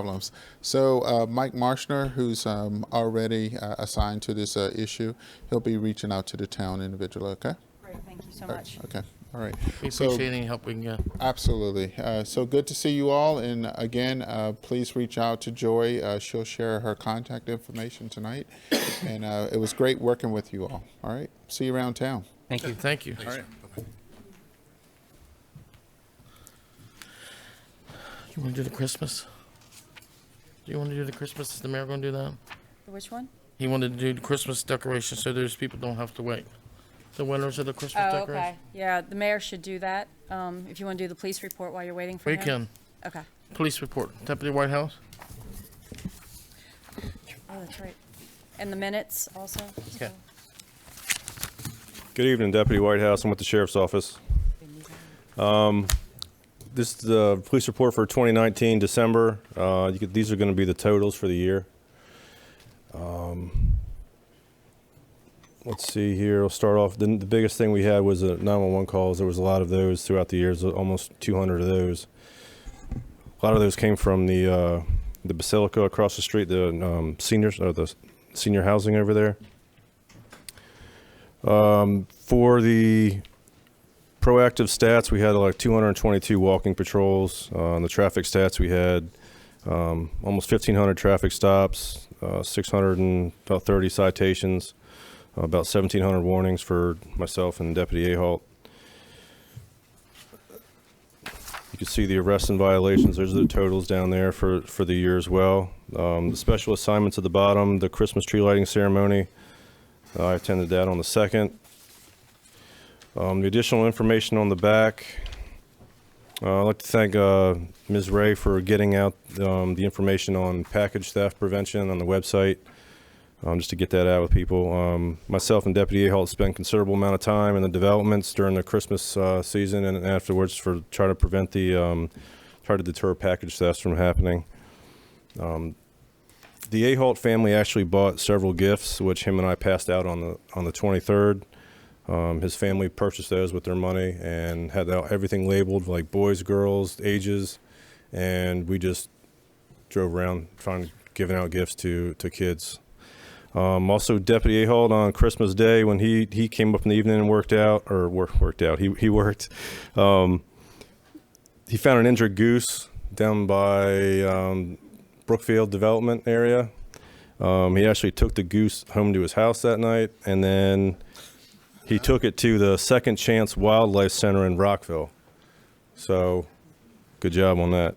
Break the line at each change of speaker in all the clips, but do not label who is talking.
problems. So uh, Mike Marshner, who's um, already uh, assigned to this uh, issue, he'll be reaching out to the town individually, okay?
Great, thank you so much.
Okay, all right.
We
So-
appreciate any help we can get.
Absolutely. Uh, so good to see you all. And again, uh, please reach out to Joy. Uh, she'll share her contact information tonight. and uh, it was great working with you all. All right. See you around town.
Thank you.
Thank you. You want to do the Christmas? Do you want to do the Christmas? Is the mayor going to do that?
Which one?
He wanted to do the Christmas decoration so those people don't have to wait. The winners of the Christmas
Oh, okay.
decoration.
Yeah, the mayor should do that, um, if you want to do the police report while you're waiting for
We
him.
can.
Okay.
Police report. Deputy White House.
Oh, that's right. And the minutes also.
Okay.
Good evening, Deputy Whitehouse. I'm with the Sheriff's Office. Um, This is the police report for 2019, December. Uh, you could- These are going to be the totals for the year. Um, Let's see here, we'll start off, the the biggest thing we had was the 911 calls. There was a lot of those throughout the years, almost 200 of those. A lot of those came from the uh, the Basilica across the street, the um, seniors, or the senior housing over there for the proactive stats, we had like 222 walking patrols. Uh, on the traffic stats, we had um, almost 1,500 traffic stops, uh, 630 citations, uh, about 1,700 warnings for myself and Deputy Ahalt. You can see the arrests and violations. There's the totals down there for, for the year as well. Um, the special assignments at the bottom, the Christmas tree lighting ceremony. Uh, I attended that on the second. Um, the additional information on the back. Uh, I'd like to thank uh, Ms. Ray for getting out um, the information on package theft prevention on the website, um, just to get that out with people. Um, myself and Deputy Ahalt spent considerable amount of time in the developments during the Christmas uh, season and afterwards for trying to prevent the, um, try to deter package thefts from happening. Um, The Ahalt family actually bought several gifts, which him and I passed out on the on the 23rd. Um, his family purchased those with their money and had that- everything labeled like boys, girls, ages, and we just drove around trying giving out gifts to to kids. Um, also, Deputy Ahalt on Christmas Day when he he came up in the evening and worked out or work, worked out he he worked. Um, he found an injured goose down by um, Brookfield Development area. Um, he actually took the goose home to his house that night, and then he took it to the Second Chance Wildlife Center in Rockville. So, good job on that.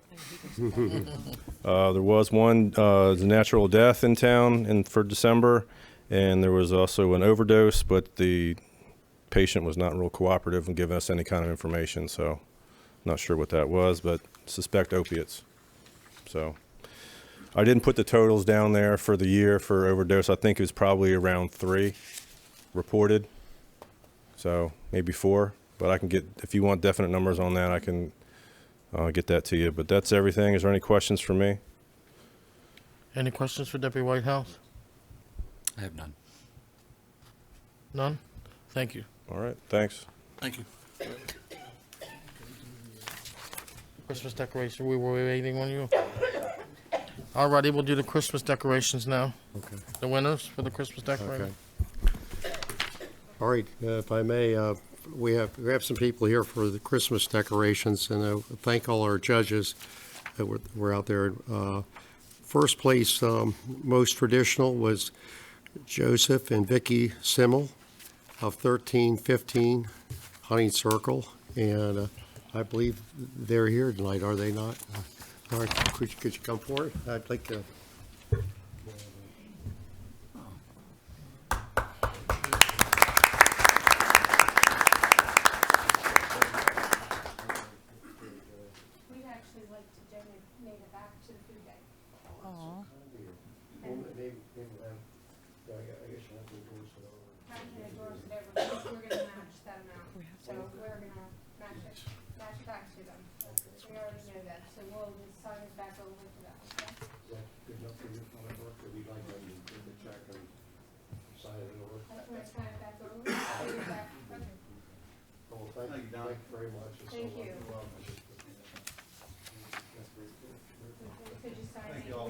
uh, there was one uh, the natural death in town in for December, and there was also an overdose, but the patient was not real cooperative in giving us any kind of information. So, not sure what that was, but suspect opiates. So. I didn't put the totals down there for the year for overdose. I think it was probably around three reported. So maybe four, but I can get, if you want definite numbers on that, I can uh, get that to you. But that's everything. Is there any questions for me?
Any questions for Deputy White House?
I have none.
None? Thank you.
All right, thanks.
Thank you.
Christmas decoration, we were waiting on you. Alrighty, we'll do the Christmas decorations now.
Okay.
The winners for the Christmas
Okay.
decoration.
All right, uh, if I may, uh, we have, we have some people here for the Christmas decorations, and I thank all our judges that were, were out there. Uh, First place, um, most traditional was Joseph and Vicky Simmel of 1315 Hunting Circle, and uh, I believe they're here tonight, are they not? Uh, All right, could you, could you come forward? I'd like to.
We'd actually like to donate it back to the food bank. Having the doors it over, because we're gonna match that amount, so we're gonna match it, match it back to them. We already know that, so we'll just sign it back over to them. That's when I sign it back over, sign it back, okay.
Thank you very much.
Thank you. So just signing.